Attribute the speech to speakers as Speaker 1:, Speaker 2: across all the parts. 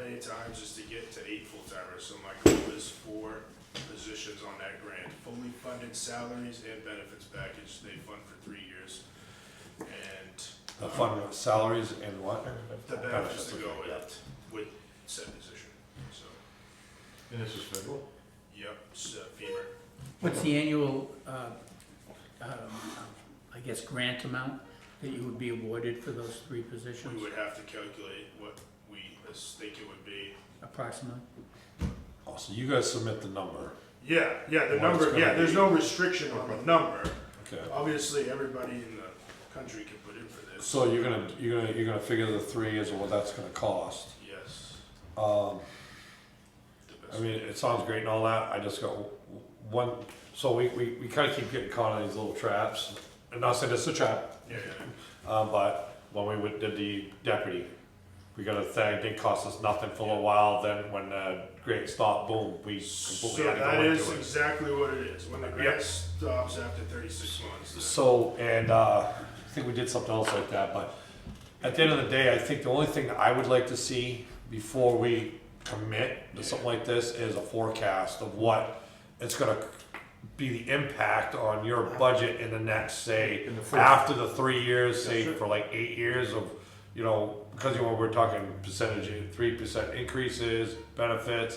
Speaker 1: at times is to get to eight full-timers, so my goal is four positions on that grant. Fully funded salaries and benefits package, they fund for three years. And.
Speaker 2: The fund with salaries and what?
Speaker 1: The benefits to go
Speaker 2: okay,
Speaker 1: with, with said position, so,
Speaker 3: And this is federal?
Speaker 1: yep, it's uh, FEMA.
Speaker 4: What's the annual, uh, um, I guess, grant amount that you would be awarded for those three
Speaker 1: We
Speaker 4: positions
Speaker 1: would have to calculate what we as- think it would be.
Speaker 4: approximately?
Speaker 2: yeah. Oh, so you guys submit the number,
Speaker 1: Yeah, yeah, the
Speaker 2: What it's
Speaker 1: number,
Speaker 2: gonna
Speaker 1: yeah, there's
Speaker 2: be.
Speaker 1: no restriction on the number.
Speaker 2: okay.
Speaker 1: Obviously, everybody in the country can put in for this,
Speaker 2: So you're gonna, you're gonna, you're gonna figure the three is what that's gonna cost.
Speaker 1: yes.
Speaker 2: Um,
Speaker 1: the
Speaker 2: I
Speaker 1: best.
Speaker 2: mean, it sounds great and all that, I just got w- w- one, so we, we, we kinda keep getting caught in these little traps. And not saying it's a trap,
Speaker 1: Yeah, yeah.
Speaker 2: uh, but when we went- did the deputy, we got a thing, it didn't cost us nothing for a while, then when the grant stopped, boom, we
Speaker 1: So
Speaker 2: completely had to
Speaker 1: that
Speaker 2: go
Speaker 1: is
Speaker 2: into it.
Speaker 1: exactly what it is, when the grant
Speaker 2: Yep.
Speaker 1: stops after thirty-six months.
Speaker 2: So, and uh, I think we did something else like that, but at the end of the day, I think the only thing I would like to see before we commit to something like this is a forecast of what it's gonna be the impact on your budget in the next, say,
Speaker 3: In the first-
Speaker 2: after the three years, say,
Speaker 3: Yes, sir.
Speaker 2: for like eight years of, you know, because you know, we're talking percentage, three percent increases, benefits,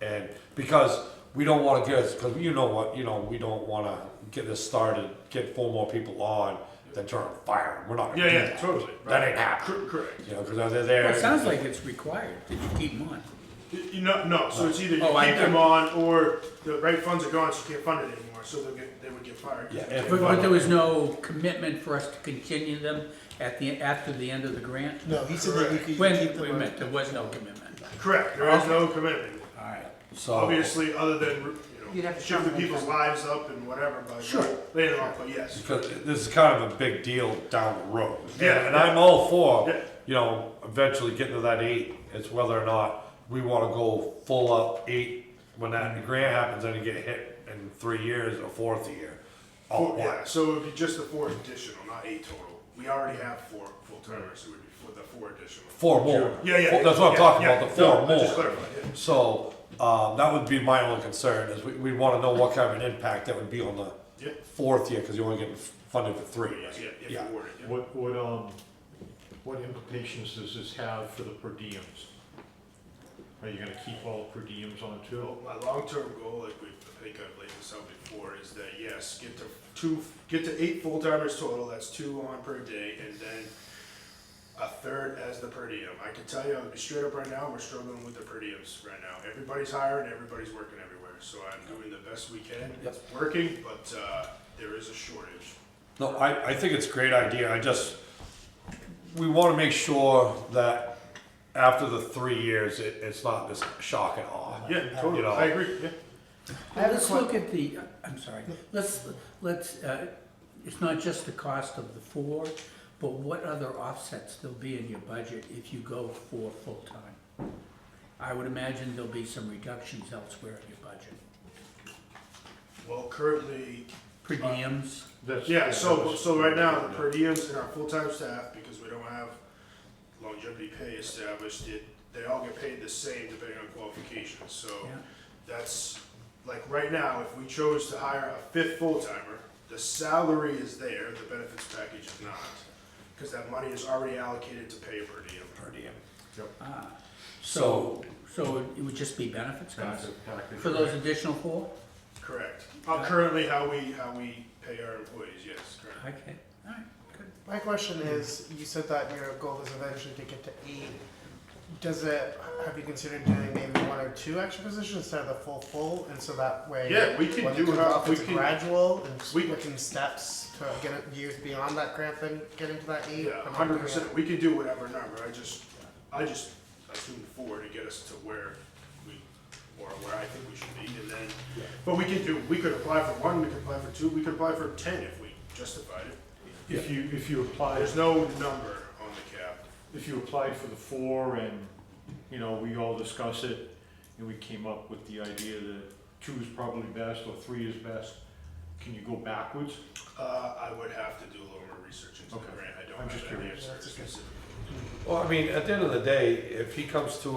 Speaker 2: and because we don't want to get, because you know what, you know, we don't want to get this started, get four more people on, then turn on fire. We're not. Gonna
Speaker 1: Yeah,
Speaker 2: do
Speaker 1: yeah,
Speaker 2: that.
Speaker 1: totally.
Speaker 2: That
Speaker 1: right.
Speaker 2: ain't happening.
Speaker 1: Cor- Correct.
Speaker 2: You know, because they're there.
Speaker 4: Well, it sounds like it's required that you keep them on.
Speaker 1: Y- You know, no, so it's either you
Speaker 4: Oh, I
Speaker 1: keep them
Speaker 4: know.
Speaker 1: on or the right funds are gone, so you can't fund it anymore, so they'll get, they would get fired.
Speaker 2: Yeah,
Speaker 1: They
Speaker 2: if-
Speaker 4: But,
Speaker 1: can't
Speaker 4: but there was no commitment for us to continue them at the, after the end of the grant?
Speaker 5: No, he said that we could
Speaker 4: When,
Speaker 5: keep them
Speaker 4: wait a
Speaker 5: on.
Speaker 4: minute, there was no commitment.
Speaker 1: fund- Correct, there is no commitment,
Speaker 4: All right.
Speaker 2: so
Speaker 1: obviously, other than, you
Speaker 6: You'd
Speaker 1: know,
Speaker 6: have to
Speaker 1: shifting
Speaker 6: terminate
Speaker 1: people's
Speaker 6: them.
Speaker 1: lives up and whatever, but.
Speaker 4: Sure.
Speaker 1: Later on, but yes,
Speaker 2: because this is kind of a big deal down the road.
Speaker 1: Yeah.
Speaker 2: and I'm all for
Speaker 1: Yeah.
Speaker 2: you know eventually getting to that eight. It's whether or not we want to go full up eight when
Speaker 1: Mm-hmm.
Speaker 2: that grant happens and you get hit in three years or fourth year. Oh, All
Speaker 1: Four-
Speaker 2: at
Speaker 1: yeah,
Speaker 2: once.
Speaker 1: so it would be just the four additional, not eight total, we already have four full-timers, so it would be for the four additional.
Speaker 2: Four more.
Speaker 1: Yeah, yeah.
Speaker 2: Four- that's what I'm
Speaker 1: yeah,
Speaker 2: talking
Speaker 1: yeah.
Speaker 2: about. The four
Speaker 1: No, I
Speaker 2: more.
Speaker 1: Just clarified, yeah.
Speaker 2: So um, that would be my only concern is we, we want to know what kind of an impact that would be on the
Speaker 1: Yeah.
Speaker 2: fourth year because you're only getting funded for three.
Speaker 1: Yeah,
Speaker 2: right?
Speaker 1: yeah, if awarded, yeah.
Speaker 3: What, what, um, what implications does this have for the per diems? Are you gonna keep all per diems on too?
Speaker 1: Well, My long-term goal, like we, I think I've laid this out before, is that yes, get to two, get to eight full-timers total, that's two on per day, and then a third as the per diem. I can tell you, straight up right now, we're struggling with the per diems right now. Everybody's hiring, everybody's working everywhere, so I'm doing the best we can. It's working, but, uh, there is a shortage.
Speaker 2: No, I, I think it's a great idea, I just, we wanna make sure that after the three years, it, it's not this shock and awe.
Speaker 1: Yeah,
Speaker 2: You
Speaker 1: totally,
Speaker 2: know.
Speaker 1: I agree, yeah.
Speaker 5: I have a
Speaker 4: Let's
Speaker 5: que-
Speaker 4: look at the, uh, I'm sorry, let's, let's, uh, it's not just the cost of the four, but what other offsets there'll be in your budget if you go for full-time? I would imagine there'll be some reductions elsewhere in your budget.
Speaker 1: Well, currently,
Speaker 4: Per
Speaker 5: Uh,
Speaker 4: diems,
Speaker 3: That's-
Speaker 1: Yeah, so,
Speaker 3: that's-
Speaker 1: so right now, the per diems and our full-time staff, because we don't have longevity pay established, it, they all get paid the same depending on qualifications, so
Speaker 4: yeah,
Speaker 1: that's, like, right now, if we chose to hire a fifth full-timer, the salary is there, the benefits package is not, because that money is already allocated to pay per diem.
Speaker 2: Per diem.
Speaker 4: ah,
Speaker 2: So,
Speaker 4: so it would just be benefits
Speaker 3: That's
Speaker 4: costs
Speaker 3: a package,
Speaker 4: for those
Speaker 3: right?
Speaker 4: additional four?
Speaker 1: Correct. Uh, currently, how we, how we pay our employees, yes, correct.
Speaker 4: Okay, all right, good.
Speaker 5: My question is, you said that your goal is eventually to get to eight. Does it, have you considered doing maybe one or two extra positions instead of the full full, and so that way?
Speaker 1: Yeah, we can
Speaker 5: when
Speaker 1: do
Speaker 5: it comes
Speaker 1: how-
Speaker 5: off,
Speaker 1: we
Speaker 5: it's
Speaker 1: can-
Speaker 5: gradual, and
Speaker 1: we-
Speaker 5: looking steps to get it- years beyond that grant, then getting to that eight?
Speaker 1: Yeah, hundred percent, we can do whatever number, I just, I just assumed four to get us to where we, or where I think we should be, and then, but we can do, we could apply for one, we could apply for two, we could apply for ten if we justified it.
Speaker 3: If you, if you apply,
Speaker 1: There's no number on the cap.
Speaker 3: if you applied for the four and, you know, we all discuss it, and we came up with the idea that two is probably best, or three is best, can you go backwards?
Speaker 1: Uh, I would have to do a little more research into the
Speaker 3: Okay.
Speaker 1: grant, I don't
Speaker 3: I'm
Speaker 1: have
Speaker 3: just
Speaker 1: that
Speaker 3: curious.
Speaker 1: answer specifically.
Speaker 2: well, I mean, at the end of the day, if he comes to